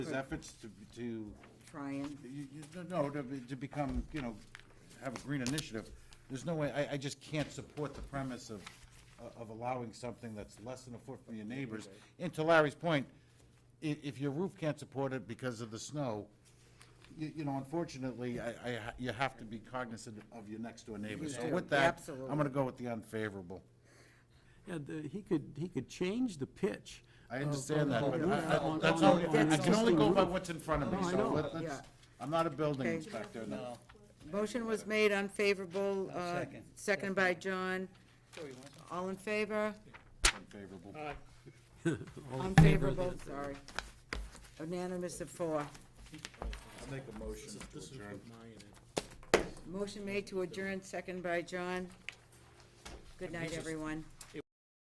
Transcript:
His efforts to, to, you, Trying. you, no, to, be- to become, you know, have a green initiative, there's no way, I, I just can't support the premise of, of allowing something that's less than a foot from your neighbors. And to Larry's point, i- if your roof can't support it because of the snow, you, you know, unfortunately, I, I, ha- you have to be cognizant of your next door neighbor. So do, with that, I'm absolutely. gonna go with the unfavorable. Yeah, the, he could, he could change the pitch. I of- understand that, of- but of- I- I- on- that's all, on- on I can existing only go by roof. what's in front of me, No, I so know. let- let's, I'm not a building Okay. inspector, no. Motion was made unfavorable, uh, second. second by John. All in favor? Unfavorable. All in favor of Unfavorable, the- sorry. Unanimous of four. I'll make a motion to adjourn. Motion made to adjourn, second by John. Good night, everyone.